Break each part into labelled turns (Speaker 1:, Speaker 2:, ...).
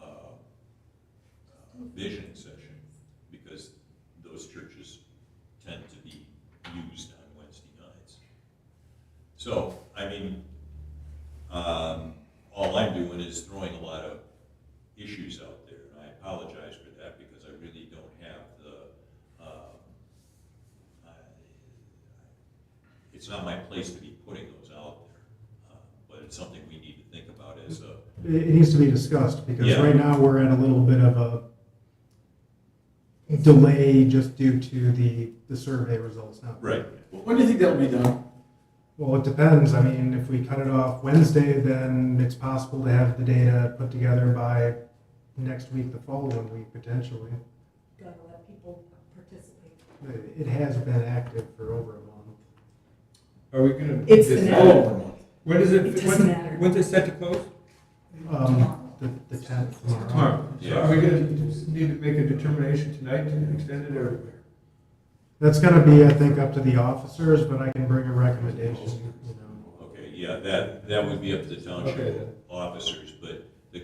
Speaker 1: uh, vision session, because those churches tend to be used on Wednesday nights. So, I mean, um, all I'm doing is throwing a lot of issues out there, and I apologize for that, because I really don't have the, um, I- it's not my place to be putting those out there, uh, but it's something we need to think about as a,
Speaker 2: It, it needs to be discussed, because
Speaker 1: Yeah.
Speaker 2: right now, we're at a little bit of a delay just due to the, the survey results now.
Speaker 1: right,
Speaker 3: When do you think that'll be done?
Speaker 2: Well, it depends, I mean, if we cut it off Wednesday, then it's possible to have the data put together by next week, the following week, potentially.
Speaker 4: gotta let people participate.
Speaker 2: It- It has been active for over a month.
Speaker 5: Are we gonna?
Speaker 4: It's the
Speaker 5: decide-
Speaker 4: next-
Speaker 3: All over month.
Speaker 5: When is
Speaker 4: It
Speaker 5: it,
Speaker 4: doesn't
Speaker 5: when,
Speaker 4: matter.
Speaker 5: when's it set to close?
Speaker 2: Um, the, the tenth tomorrow.
Speaker 5: Tomorrow. So
Speaker 1: Yeah.
Speaker 5: are we gonna need to make a determination tonight to extend it or?
Speaker 2: That's gonna be, I think, up to the officers, but I can bring a recommendation, you know.
Speaker 1: okay, yeah, that, that would be up to the
Speaker 5: Okay,
Speaker 1: township
Speaker 5: then.
Speaker 1: officers, but the,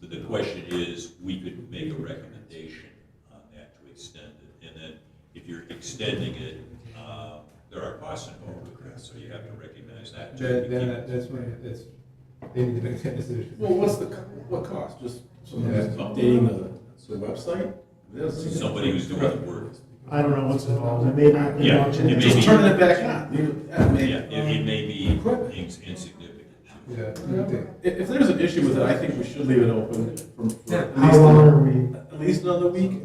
Speaker 1: the, the question is, we could make a recommendation on that to extend it, and then if you're extending it, uh, there are costs involved with that, so you have to recognize that. too.
Speaker 5: Then, then that- that's when, that's, they need to make that decision.
Speaker 3: Well, what's the, co- what cost? Just someone
Speaker 5: Yeah.
Speaker 3: just updating the, the website? There's-
Speaker 1: Somebody who's doing the work,
Speaker 2: I don't know what's involved, it may not be
Speaker 1: Yeah,
Speaker 2: much.
Speaker 1: it may
Speaker 3: Just
Speaker 1: be-
Speaker 3: turning it back on. Leave it- yeah, I
Speaker 1: yeah,
Speaker 3: mean,
Speaker 1: it, it may be ins- insignificant.
Speaker 5: Yeah, you think.
Speaker 3: If, if there's an issue with it, I think we should leave it open for, for at
Speaker 2: How
Speaker 3: least,
Speaker 2: long
Speaker 3: a-
Speaker 2: are we?
Speaker 3: at least another week.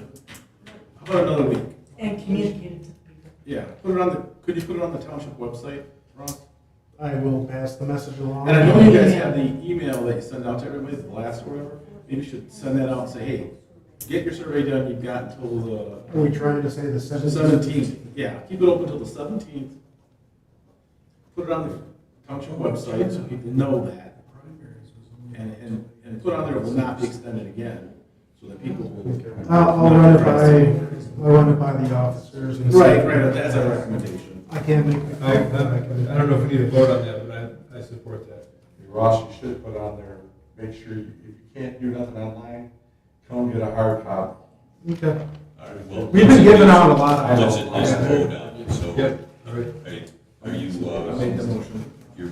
Speaker 3: How about another week?
Speaker 4: And communicate it to the people.
Speaker 3: Yeah, put it on the, could you put it on the township website, Ross?
Speaker 2: I will pass the message along.
Speaker 3: And I know you guys have the email that you send out to everybody, the last or whatever. Maybe you should send that out and say, hey, get your survey done. You've got until the
Speaker 2: Are we trying to say the seventeenth?
Speaker 3: Seventeenth, yeah, keep it open till the seventeenth. Put it on the township website so people know that. And, and, and put on there it will not be extended again, so that people will.
Speaker 2: Uh, I'll, I'll run it by, I'll run it by the officers and. see.
Speaker 3: Right, right, Oh, uh, that's our recommendation.
Speaker 2: I can't make. the
Speaker 5: I,
Speaker 2: call, but
Speaker 5: I
Speaker 2: can-
Speaker 5: I don't know if we need to vote on that, but I, I support that.
Speaker 6: Ross, you should put on there, make sure, you- if you can't do nothing online, come get a hard copy.
Speaker 2: Okay,
Speaker 1: All right, well,
Speaker 2: we've been giving out a lot of.
Speaker 1: Let's at least vote on it, so.
Speaker 5: Yep.
Speaker 1: Are are you,
Speaker 3: I made
Speaker 1: uh,
Speaker 3: the motion.
Speaker 1: your,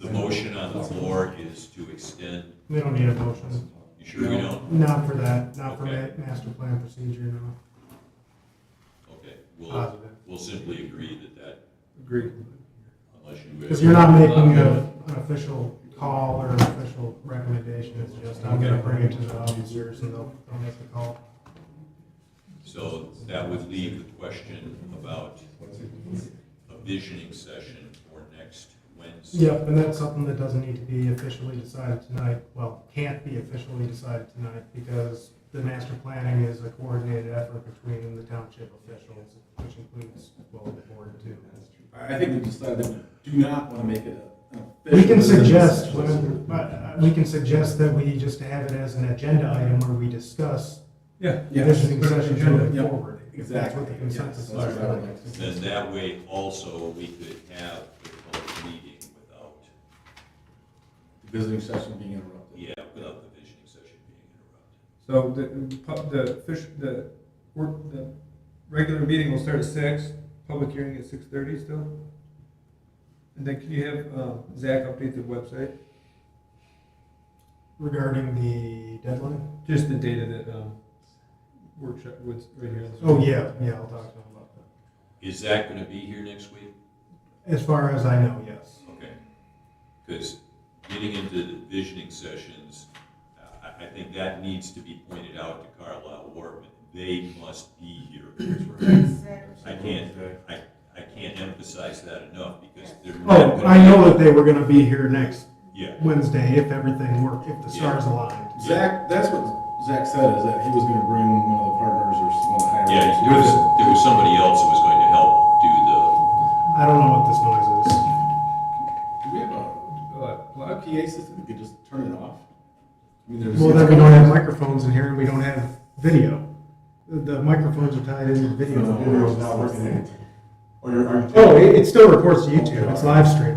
Speaker 1: the motion on the floor is to extend,
Speaker 2: We don't need a motion,
Speaker 1: you sure we don't?
Speaker 2: not for that, not for ma-
Speaker 1: Okay.
Speaker 2: master plan procedure, no,
Speaker 1: Okay,
Speaker 3: Uh.
Speaker 1: we'll,
Speaker 2: positive.
Speaker 1: we'll simply agree that that,
Speaker 5: Agreed.
Speaker 1: unless you.
Speaker 2: Because you're not making a, an official call or an official recommendation, it's just, I'm gonna bring it to the officers and they'll, they'll make the call.
Speaker 1: So that would leave the question about a visioning session for next Wednesday.
Speaker 2: Yep, and that's something that doesn't need to be officially decided tonight, well, can't be officially decided tonight, because the master planning is a coordinated effort between the township officials, which includes, well, the board too.
Speaker 3: I I think we decided that we do not want to make it an official.
Speaker 2: We can suggest,
Speaker 3: business.
Speaker 2: whatever- but, uh, we can suggest that we just have it as an agenda item where we discuss
Speaker 5: Yeah.
Speaker 2: visioning
Speaker 5: Put it on the
Speaker 2: sessions
Speaker 5: agenda.
Speaker 2: going
Speaker 3: Yep.
Speaker 2: forward. if That's what the
Speaker 3: Exactly.
Speaker 2: consensus
Speaker 3: Yes.
Speaker 2: is.
Speaker 3: Sorry, I don't like
Speaker 1: Then that way also we could have a public meeting without,
Speaker 3: The Visiting session being interrupted.
Speaker 1: yeah, without the visioning session being interrupted.
Speaker 5: So the, pub- the fish, the, work, the regular meeting will start at six, public hearing at six thirty still? And then can you have, um, Zach update the website,
Speaker 2: Regarding the deadline?
Speaker 5: just the data that, um, workshop was right here. on the
Speaker 2: Oh,
Speaker 5: screen.
Speaker 2: yeah, yeah, I'll talk to him about that.
Speaker 1: Is that gonna be here next week?
Speaker 2: As far as I know, yes.
Speaker 1: Okay. Because getting into the visioning sessions, uh, I, I think that needs to be pointed out to Carlisle Warman. They must be here. I can't, I, I can't emphasize that enough because they're. not
Speaker 2: Oh,
Speaker 1: gonna
Speaker 2: I
Speaker 1: be-
Speaker 2: know that they were gonna be here next
Speaker 1: Yeah,
Speaker 2: Wednesday if everything worked, if the stars
Speaker 1: Yeah.
Speaker 2: aligned.
Speaker 3: Zach, that's what Zach said, is that he was going to bring one of the partners or some of the higher.
Speaker 1: yeah, there was, there was somebody else who was going to help do the,
Speaker 2: I don't know what this noise is.
Speaker 3: Do we have a?
Speaker 5: Uh,
Speaker 3: A
Speaker 5: plug?
Speaker 3: PA system, you could just turn it off. I mean, there's-
Speaker 2: Well, then we don't have microphones in here and we don't have video. The microphones are tied into video.
Speaker 6: Video's not working. Or you're, are you?
Speaker 2: Oh,
Speaker 3: Oh,
Speaker 2: it, it still reports to YouTube. It's live streaming.